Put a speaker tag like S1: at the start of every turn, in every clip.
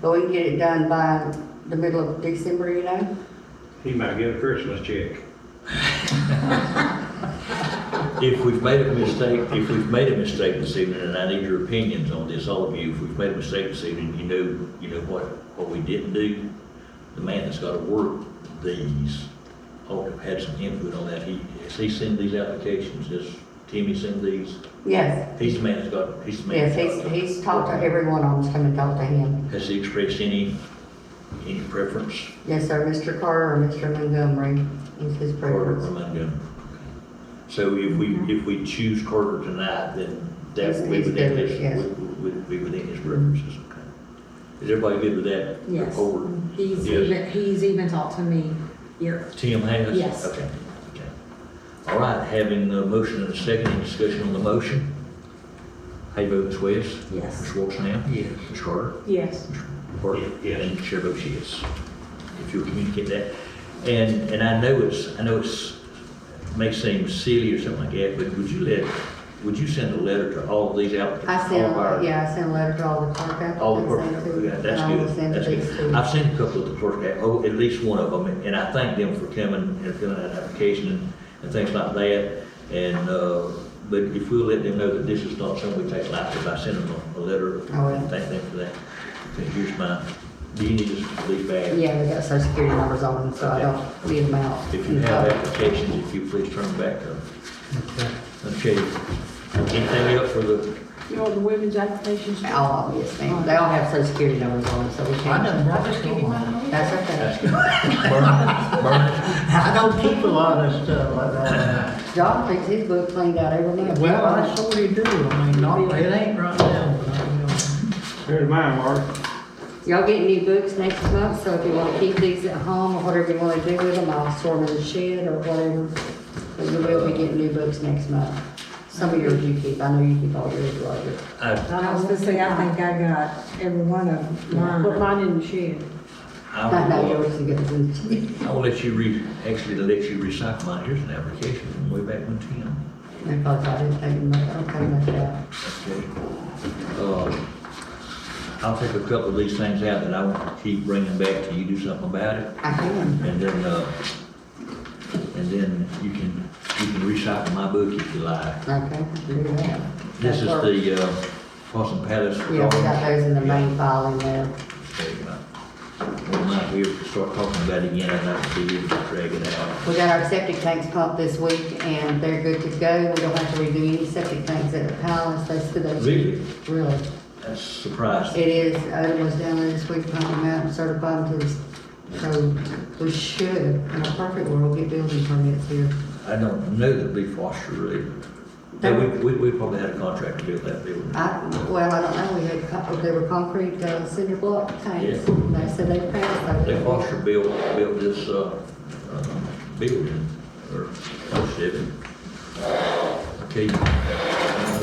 S1: So we can get it done by the middle of December, you know?
S2: He might get a Christmas check.
S3: If we've made a mistake, if we've made a mistake this evening, and I need your opinions on this, all of you, if we've made a mistake this evening, you know, you know what, what we didn't do? The man that's gotta work these, ought to have had some input on that. He, has he sent these applications? Does Timmy send these?
S1: Yes,
S3: He's the man that's got, he's the man
S1: yes,
S3: that's
S1: he's,
S3: got.
S1: he's talked to everyone on, who's come and talked to him.
S3: Has he expressed any, any preference
S1: Yes, sir, Mr. Carter or Mr. Montgomery is his
S3: for
S1: preference.
S3: Montgomery? So if we, if we choose Carter tonight, then that
S1: He's-
S3: will be
S1: he's
S3: within
S1: good, yes.
S3: his, would, would be within his preferences, okay? Is everybody good with that?
S4: Yes.
S3: Over.
S4: He's
S3: Yes.
S4: even, he's even talked to me here.
S3: Tim has?
S4: Yes.
S3: Okay, okay. All right, having a motion and a second, any discussion on the motion? How you vote, Ms. West?
S4: Yes.
S3: Ms. Walton? Yes. Ms. Carter?
S5: Yes.
S3: Or-
S2: Yes.
S3: And Chair votes yes, if you'll communicate that. And, and I know it's, I know it's, may seem silly or something like that, but would you let, would you send a letter to all of these applicants?
S1: I
S3: all of our-
S1: sent, yeah, I sent a letter to all the clerk applicants.
S3: All the clerk,
S1: and to-
S3: yeah,
S1: and
S3: that's
S1: I will
S3: good,
S1: send to
S3: that's
S1: these
S3: good.
S1: two.
S3: I've seen a couple of the clerk, app- oh, at least one of them, and I thank them for coming and filling out application and, and things like that. And, uh, but if we'll let them know that this is not something we take lightly, by sending them a, a letter,
S1: I will.
S3: and thank them for that. And here's my, do you need us to leave back?
S1: Yeah, we got social security numbers on them, so I don't read them out.
S3: If you have applications, if you please turn back to. Okay. Anything else for the,
S5: You know, the women's applications.
S1: All of them, yes, ma'am. They all have social security numbers on them, so we
S6: I
S1: can't.
S6: done brought
S5: Just give you mine.
S1: That's okay.
S3: ask you? Burn- burn-
S6: I don't keep a lot of stuff like that.
S1: John thinks his book cleaned out every month.
S6: Well, I sort of do, I mean, not, it ain't right now, but I will.
S2: There's mine, Mark.
S1: Y'all get new books next month, so if you wanna keep these at home or whatever you wanna do with them, I'll store them in the shed or whatever. But you will be getting new books next month. Some of yours you keep, I know you keep all yours, Roger.
S3: I,
S4: I was gonna say, I think I got every one of
S5: Put
S4: mine.
S5: mine in the shed.
S1: Not
S3: I
S1: know
S3: will, uh,
S1: yours, you get them in the shed.
S3: I'll let you re, actually, to let you recycle mine, here's an application from way back when Tim.
S1: And plus, I didn't take them, I don't take much out.
S3: Okay. Uh, I'll take a couple of these things out that I want to keep bringing back till you do something about it.
S1: I can.
S3: And then, uh, and then you can, you can recycle my book if you like.
S1: Okay, do that.
S3: This is the, uh, Possum Palace.
S1: Yeah, we got
S3: drawings.
S1: those in the main file in there.
S3: There you go. Well, now, we have to start talking about it again, I'd like to see you drag it out.
S1: We got our septic tanks pumped this week and they're good to go. We don't have to redo any septic tanks at the palace, they said they.
S3: Really?
S1: Really.
S3: That's surprising.
S1: It is, Odom was down there this week, pumping them out and certified them to us. So we should, in a perfect world, get building permits here.
S3: I don't know that Lee Foster really,
S1: They-
S3: we, we, we probably had a contract to build that building.
S1: I, well, I don't know, we had, co- they were concrete uh, cinder block tanks.
S3: Yeah.
S1: And They said they passed.
S3: Lee
S1: those.
S3: Foster built, built this, uh, uh, building, or, oh, shit. Okay,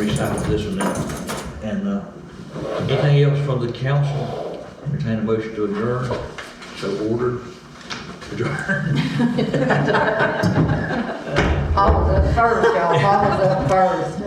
S3: recycle this one now. And, uh, anything else from the council? Entertain a motion to adjourn, so ordered. Adjourn.
S1: I was up first, y'all, I was up first.